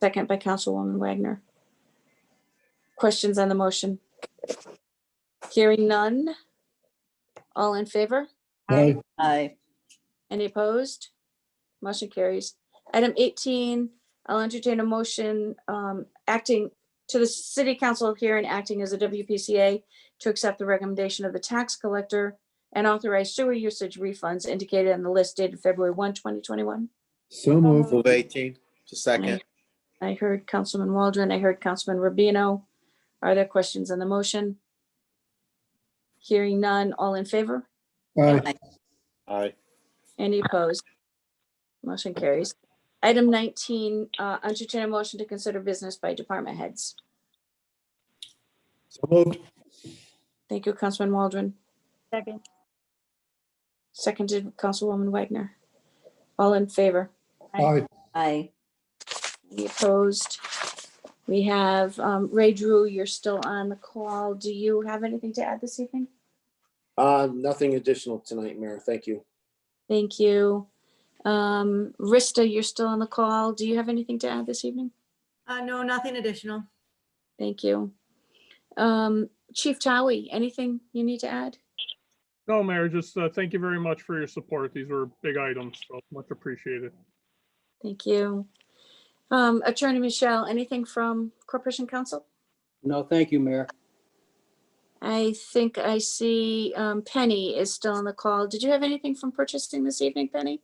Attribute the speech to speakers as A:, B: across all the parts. A: Second by Councilwoman Wagner. Questions on the motion? Hearing none. All in favor?
B: Aye.
C: Aye.
A: Any opposed? Motion carries. Item 18, I'll entertain a motion um, acting to the city council here and acting as a WPCA to accept the recommendation of the tax collector and authorize sewer usage refunds indicated on the list dated February 1, 2021.
B: So moved.
D: Move 18 to second.
A: I heard Councilman Waldron, I heard Councilman Rubino. Are there questions on the motion? Hearing none, all in favor?
B: Aye.
D: Aye.
A: Any opposed? Motion carries. Item 19, uh, entertain a motion to consider business by department heads.
B: So moved.
A: Thank you, Councilman Waldron.
E: Second.
A: Seconded, Councilwoman Wagner. All in favor?
B: Aye.
C: Aye.
A: Any opposed? We have um, Ray Drew, you're still on the call. Do you have anything to add this evening?
F: Uh, nothing additional tonight, Mayor. Thank you.
A: Thank you. Um, Rista, you're still on the call. Do you have anything to add this evening?
E: Uh, no, nothing additional.
A: Thank you. Um, Chief Towie, anything you need to add?
G: No, Mayor, just uh, thank you very much for your support. These were big items, so much appreciated.
A: Thank you. Um, Attorney Michelle, anything from Corporation Counsel?
H: No, thank you, Mayor.
A: I think I see um, Penny is still on the call. Did you have anything from purchasing this evening, Penny?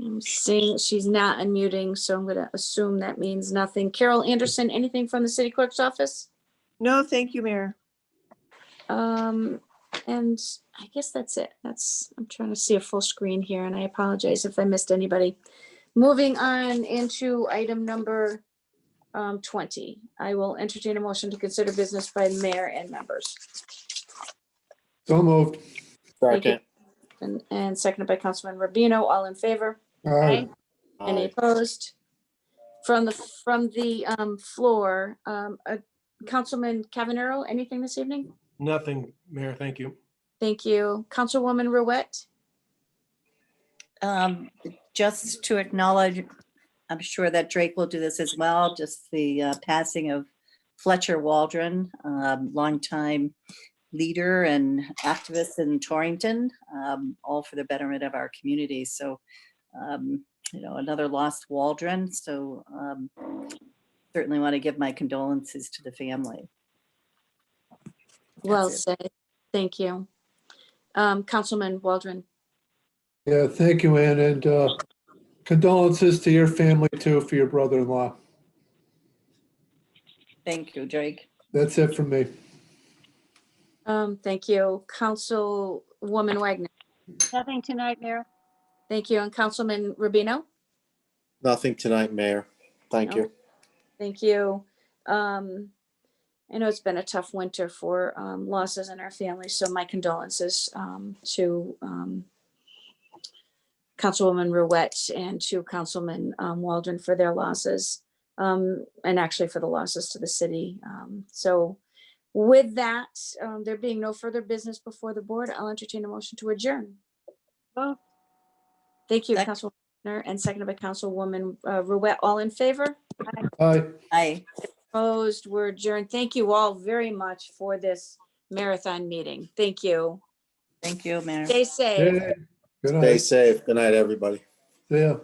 A: I'm seeing she's not unmuting, so I'm gonna assume that means nothing. Carol Anderson, anything from the city clerk's office?
I: No, thank you, Mayor.
A: Um, and I guess that's it. That's, I'm trying to see a full screen here and I apologize if I missed anybody. Moving on into item number um, twenty, I will entertain a motion to consider business by mayor and members.
B: So moved.
A: Thank you.
D: Second.
A: And, and seconded by Councilman Rubino, all in favor?
B: Aye.
A: Any
D: Aye.
A: opposed? From the, from the um, floor, um, uh, Councilman Cavanero, anything this evening?
J: Nothing, Mayor, thank you.
A: Thank you. Councilwoman Ruette?
C: Um, just to acknowledge, I'm sure that Drake will do this as well, just the uh, passing of Fletcher Waldron, um, longtime leader and activist in Torrington, um, all for the betterment of our community. So, um, you know, another lost Waldron. So, um, certainly want to give my condolences to the family.
A: Well
C: it.
A: said. Thank you. Um, Councilman Waldron,
B: Yeah, thank you, Ann, and uh, condolences to your family too for your brother-in-law.
C: Thank you, Drake.
B: That's it from me.
A: um, thank you. Councilwoman Wagner,
E: Nothing tonight, Mayor.
A: thank you. And Councilman Rubino,
D: Nothing tonight, Mayor. Thank you.
A: thank you. Um, I know it's been a tough winter for, um, losses in our family, so my condolences, um, to, um, Councilwoman Ruette and to Councilman, um, Waldron for their losses, um, and actually for the losses to the city. Um, so with that, um, there being no further business before the board, I'll entertain a motion to adjourn.
E: Moved.
A: Thank you,
C: Sec-
A: Councilwoman, and seconded by Councilwoman, uh, Ruette. All in favor?
B: Aye.
C: Aye.
A: Opposed, we're adjourned. Thank you all very much for this marathon meeting. Thank you.
C: Thank you, Mayor.
A: Stay safe.
B: Yay. Good
D: Stay
B: night.
D: safe. Good night, everybody.
B: See ya.